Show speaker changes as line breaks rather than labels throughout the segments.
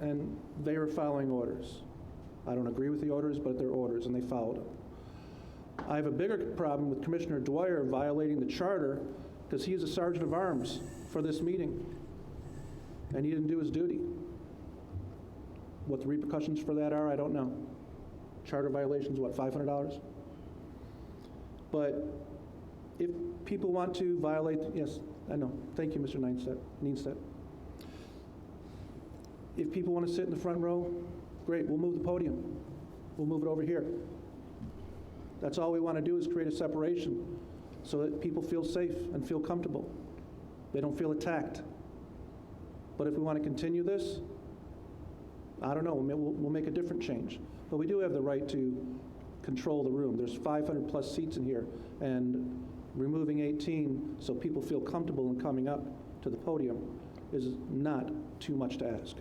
and they are following orders. I don't agree with the orders, but they're orders, and they followed them. I have a bigger problem with Commissioner Dwyer violating the charter because he is a sergeant of arms for this meeting, and he didn't do his duty. What the repercussions for that are, I don't know. Charter violation's what, $500? But if people want to violate, yes, I know. Thank you, Mr. Neinstedt, Neinstedt. If people want to sit in the front row, great, we'll move the podium. We'll move it over here. That's all we want to do is create a separation so that people feel safe and feel comfortable. They don't feel attacked. But if we want to continue this, I don't know, we'll, ma- we'll we'll make a different change. But we do have the right to control the room. There's 500-plus seats in here, and removing 18 so people feel comfortable in coming up to the podium is not too much to ask.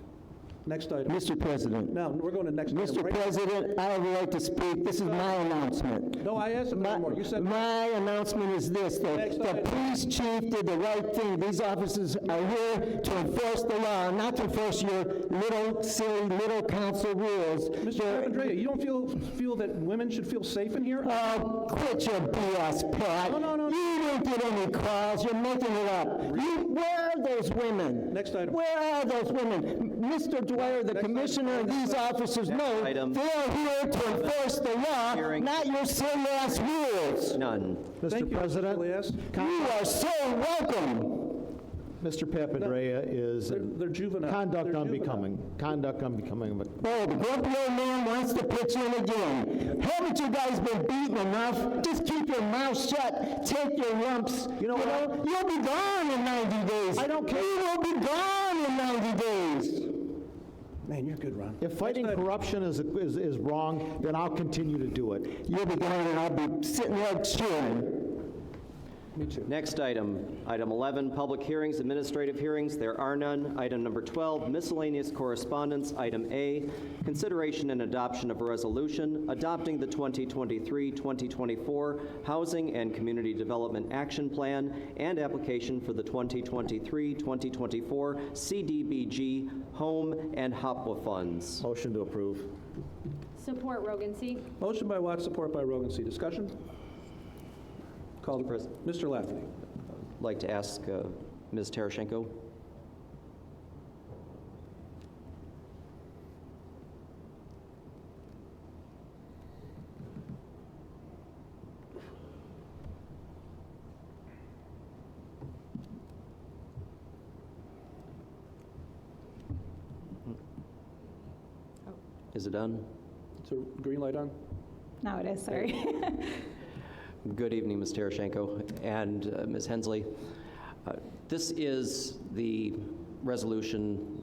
Next item.
Mr. President,
Now, we're going to next item,
Mr.
right?
President, I have the right to speak. This is my announcement.
No, I asked him
My-
more. You said,
My announcement is this,
Next
that the
item.
police chief did the right thing. These officers are here to enforce the law, not to enforce your little silly, little council rules.
Mr.
They're-
Papandreou, you don't feel, feel that women should feel safe in
Uh,
here?
Oh, quit your BS, Pat.
No, no, no.
You didn't get any calls, you're making it up. You, where are those women?
Next item.
Where are those women? M- Mr. Dwyer, the
Next item.
commissioner, and these officers know they
item.
are here to enforce the law,
Hearing.
not your silly ass rules.
None.
Thank
Mr.
you, Mr.
President,
Elias.
You are so welcome.
Mr. Papadrea is
They're- they're juvenile.
conduct
They're
unbecoming, conduct unbecoming of a
Oh, the grumpy old man wants to pitch in again. Haven't you guys been beaten enough? Just keep your mouth shut, take your lumps.
You know what?
You'll be gone in 90 days.
I don't care.
You will be gone in 90 days.
Man, you're good, Ron.
If fighting
Next item.
corruption is, is, is wrong, then I'll continue to do it.
You'll be gone and I'll be sitting there cheering.
Me too.
Next item, item 11, public hearings, administrative hearings, there are none. Item number 12, miscellaneous correspondence, item A, consideration and adoption of a resolution adopting the 2023-2024 Housing and Community Development Action Plan and application for the 2023-2024 CDBG Home and HOPWA funds.
Motion to approve.
Support Rogancy.
Motion by Watts, support by Rogan C. Discussion? Call the
President.
Mr. Lafferty.
Like to ask uh, Ms. Tarashenko? Is it done?
Is the green light on?
No, it is, sorry.
Good evening, Ms. Tereschenko and uh, Ms. Hensley. Uh, This is the resolution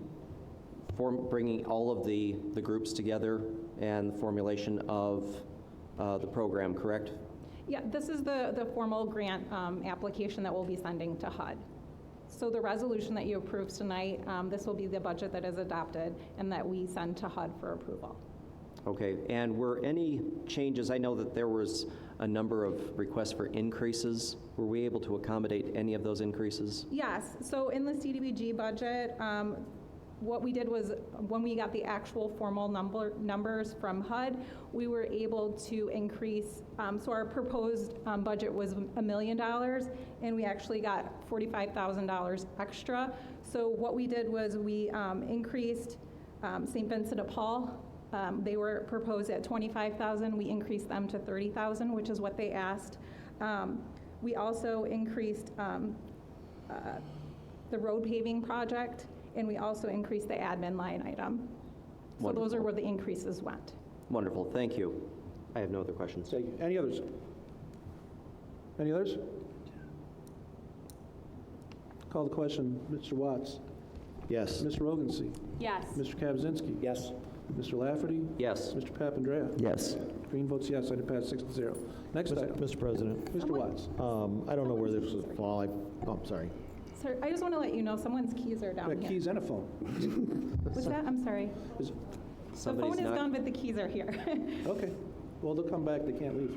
for bringing all of the, the groups together and the formulation of uh, the program, correct?
Yeah, this is the, the formal grant um, application that we'll be sending to HUD. So the resolution that you approved tonight, um, this will be the budget that is adopted and that we send to HUD for approval.
Okay, and were any changes, I know that there was a number of requests for increases. Were we able to accommodate any of those increases?
Yes, so in the CDBG budget, um, what we did was, when we got the actual formal number, numbers from HUD, we were able to increase, um, so our proposed um, budget was a million dollars, and we actually got forty-five thousand dollars extra. So what we did was, we um, increased um, St. Vincent de Paul. Um, They were proposed at twenty-five thousand, we increased them to thirty thousand, which is what they asked. Um, We also increased um, the road paving project, and we also increased the admin line item. So those are where the increases went.
Wonderful, thank you. I have no other questions.
Thank you. Any others? Any others? Call the question. Mr. Watts.
Yes.
Ms. Rogan C.
Yes.
Mr. Kaczynski. Yes. Mr. Lafferty.
Yes.
Mr. Papandrea.
Yes.
Green votes yes. Item passed six to zero. Next item.
Mr. President,
Mr. Watts.
um, I don't know where this would fall. I, oh, I'm sorry.
Sir, I just want to let you know, someone's keys are down
Got
here.
keys and a phone.
What's that? I'm sorry.
Is-
The
Somebody's
phone is
not-
gone, but the keys are here.
Okay. Well, they'll come back. They can't leave.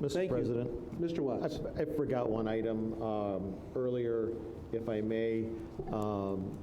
Mr.
Thank you.
President,
Mr.
I
Watts.
I forgot one item um, earlier, if I may. Um,